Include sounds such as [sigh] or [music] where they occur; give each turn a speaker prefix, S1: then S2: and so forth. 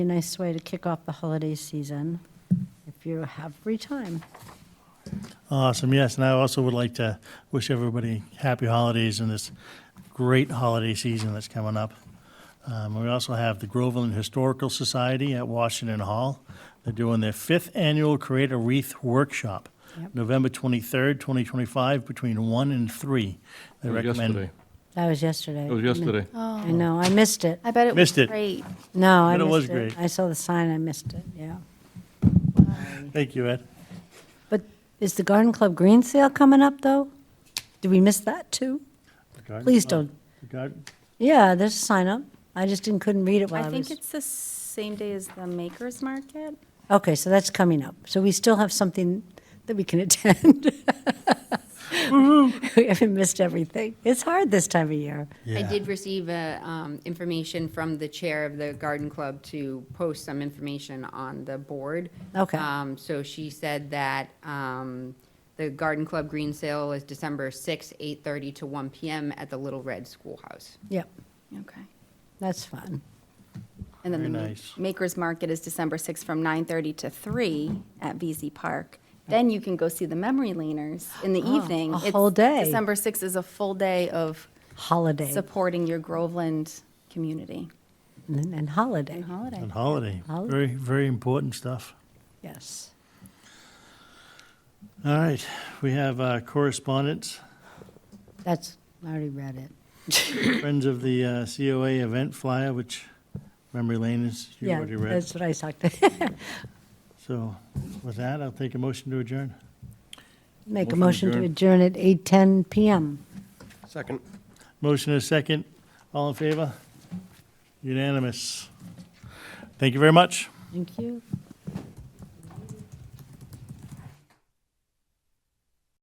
S1: A nice way to kick off the holiday season, if you have free time.
S2: Awesome, yes, and I also would like to wish everybody happy holidays and this great holiday season that's coming up. Um, we also have the Groveland Historical Society at Washington Hall. They're doing their fifth annual Create a Wreath Workshop,
S1: Yep.
S2: November twenty-third, twenty twenty-five, between one and three. They
S3: It was
S2: recommend.
S3: yesterday.
S1: That was yesterday.
S3: It was yesterday.
S4: Oh.
S1: I know, I missed it.
S5: I bet it was
S2: Missed it.
S5: great.
S1: No, I
S2: But it was
S1: missed it.
S2: great.
S1: I saw the sign, I missed it, yeah.
S2: Thank you, Ed.
S1: But is the Garden Club Green Sale coming up, though? Did we miss that, too?
S2: Uh,
S1: Please don't.
S2: The garden-
S1: Yeah, there's a sign up. I just didn't, couldn't read it while
S4: I
S1: I
S4: think
S1: was.
S4: it's the same day as the Makers Market.
S1: Okay, so that's coming up. So we still have something that we can attend. We haven't missed everything. It's hard this time of year.
S6: I
S2: Yeah.
S6: did receive uh, um, information from the chair of the garden club to post some information on the board.
S1: Okay.
S6: Um, So she said that um, the garden club green sale is December 6th, 8:30 to 1 PM at the Little Red Schoolhouse.
S1: Yep,
S4: Okay.
S1: that's fun.
S4: And then the
S2: Very
S4: Ma-
S2: nice.
S4: Makers Market is December 6th from 9:30 to 3 at VZ Park. Then you can go see the Memory Leaners in
S1: [gasps]
S4: the
S1: Ah,
S4: evening.
S1: a
S4: It's-
S1: whole day.
S4: December 6th is a full day of
S1: Holiday
S4: supporting your Groveland community
S1: and and holiday,
S4: and holiday.
S2: And holiday,
S1: Holiday.
S2: very, very important stuff.
S1: yes.
S2: All right, we have uh, correspondence.
S1: That's, I already read it.
S2: Friends of the uh, COA event flyer, which memory lane is, you
S1: Yeah,
S2: already read.
S1: that's what I [laughs] talked,
S2: So with that, I'll take a motion to adjourn.
S1: make a
S3: Motion
S1: motion to adjourn at 8:10 PM.
S3: Second.
S2: Motion is second. All in favor? Unanimous. Thank you very much.
S1: Thank you.